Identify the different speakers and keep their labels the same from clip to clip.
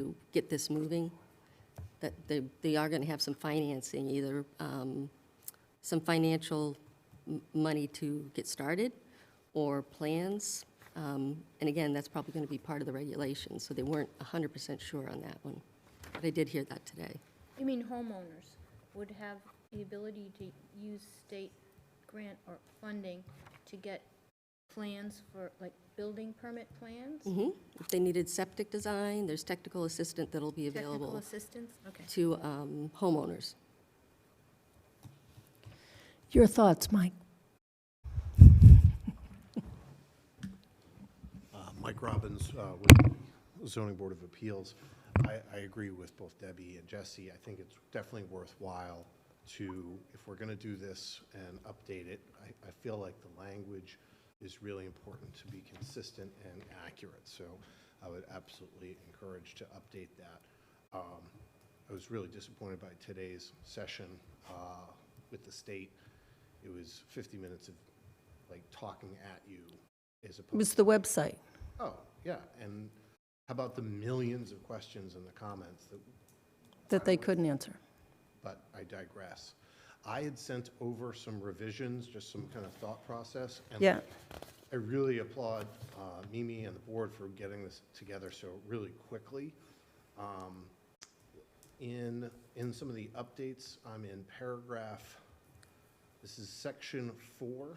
Speaker 1: to get this moving, that they, they are going to have some financing, either um, some financial m- money to get started or plans. Um, And again, that's probably going to be part of the regulation, so they weren't 100% sure on that one. But I did hear that today.
Speaker 2: You mean homeowners would have the ability to use state grant or funding to get plans for, like, building permit plans?
Speaker 1: Mhm. If they needed septic design, there's technical assistant that'll be
Speaker 2: Technical
Speaker 1: available
Speaker 2: assistance? Okay.
Speaker 1: to um, homeowners.
Speaker 3: Your thoughts, Mike?
Speaker 4: Uh, Mike Robbins, uh, with the zoning board of appeals. I, I agree with both Debbie and Jesse. I think it's definitely worthwhile to, if we're going to do this and update it, I, I feel like the language is really important to be consistent and accurate. So I would absolutely encourage to update that. Um, I was really disappointed by today's session uh, with the state. It was 50 minutes of like talking at you as opposed
Speaker 3: It was the website.
Speaker 4: Oh, yeah, and how about the millions of questions in the comments that,
Speaker 3: that they couldn't answer.
Speaker 4: but I digress. I had sent over some revisions, just some kind of thought process. and
Speaker 3: Yeah.
Speaker 4: I really applaud uh, Mimi and the board for getting this together so really quickly. Um, In, in some of the updates, I'm in paragraph, this is section four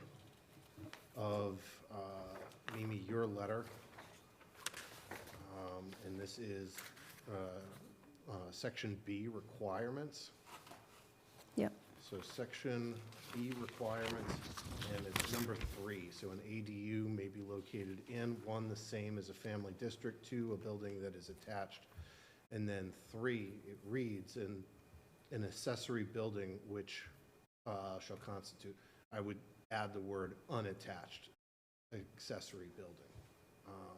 Speaker 4: of uh, Mimi, your letter. Um, And this is uh, uh, section B requirements.
Speaker 3: Yeah.
Speaker 4: So section B requirements, and it's number three. So an ADU may be located in, one, the same as a family district, two, a building that is attached. And then three, it reads, in an accessory building which uh, shall constitute, I would add the word unattached accessory building. Um,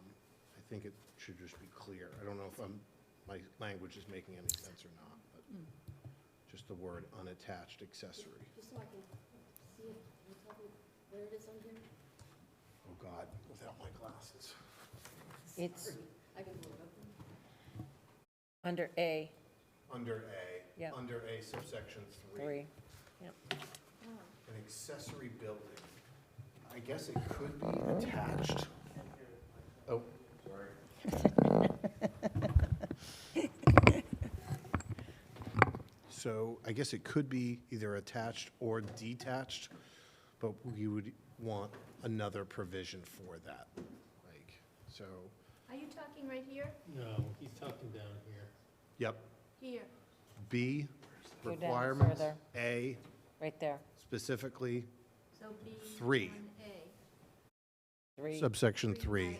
Speaker 4: I think it should just be clear. I don't know if I'm, my language is making any sense or not, but just the word unattached accessory.
Speaker 1: Just so I can see it, you tell me where it is on here?
Speaker 4: Oh, God, without my glasses.
Speaker 1: It's, I can pull it up.
Speaker 5: Under A,
Speaker 4: Under A.
Speaker 5: Yeah.
Speaker 4: Under A subsection three.
Speaker 5: three.
Speaker 4: An accessory building. I guess it could be attached. Oh, sorry. So I guess it could be either attached or detached, but we would want another provision for that. Like, so,
Speaker 2: Are you talking right here?
Speaker 6: No, he's talking down here.
Speaker 4: yep,
Speaker 2: Here.
Speaker 4: B,
Speaker 5: Go down
Speaker 4: requirements.
Speaker 5: further.
Speaker 4: A,
Speaker 5: Right there,
Speaker 4: specifically
Speaker 2: So B.
Speaker 4: Three.
Speaker 2: one
Speaker 5: three,
Speaker 4: subsection
Speaker 2: A.
Speaker 4: three,
Speaker 2: I,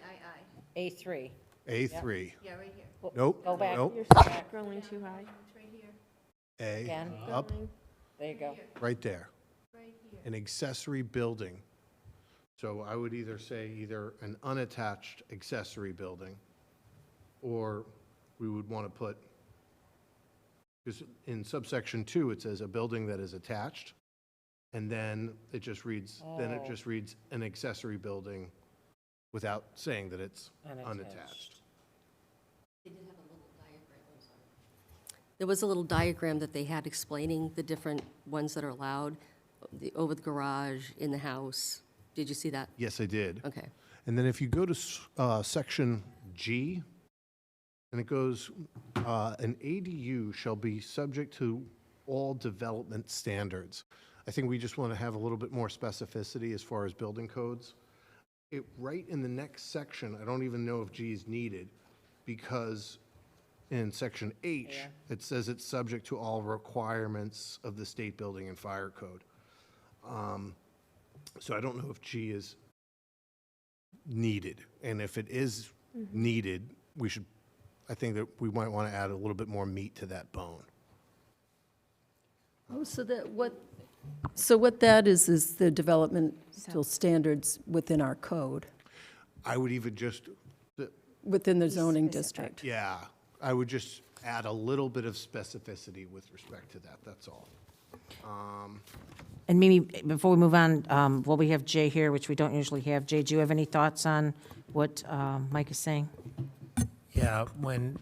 Speaker 5: A three.
Speaker 4: A three.
Speaker 2: I, I. Yeah, right here.
Speaker 4: Nope,
Speaker 5: Go back,
Speaker 4: nope,
Speaker 5: back,
Speaker 7: Scrolling too high.
Speaker 2: It's right here,
Speaker 4: A,
Speaker 5: again,
Speaker 4: up,
Speaker 5: there you go.
Speaker 2: here,
Speaker 4: right there.
Speaker 2: right here.
Speaker 4: An accessory building. So I would either say either an unattached accessory building, or we would want to put, because in subsection two, it says a building that is attached, and then it just reads, then it
Speaker 5: Oh.
Speaker 4: just reads an accessory building without saying that it's unattached.
Speaker 5: Unattached.
Speaker 1: There was a little diagram that they had explaining the different ones that are allowed, the, over the garage, in the house. Did you see that?
Speaker 4: Yes, I did.
Speaker 1: Okay.
Speaker 4: And then if you go to s- uh, section G, and it goes, uh, "An ADU shall be subject to all development standards." I think we just want to have a little bit more specificity as far as building codes. It, right in the next section, I don't even know if G is needed, because in section H, it says it's subject to all requirements of the state building and fire code. Um, So I don't know if G is needed. And if it is needed, we should, I think that we might want to add a little bit more meat to that bone.
Speaker 3: Oh, so that, what, so what that is, is the developmental standards within our code,
Speaker 4: I would even just,
Speaker 3: within the zoning district.
Speaker 4: yeah, I would just add a little bit of specificity with respect to that, that's all.
Speaker 5: And Mimi, before we move on, um, well, we have Jay here, which we don't usually have. Jay, do you have any thoughts on what um, Mike is saying?
Speaker 6: Yeah, when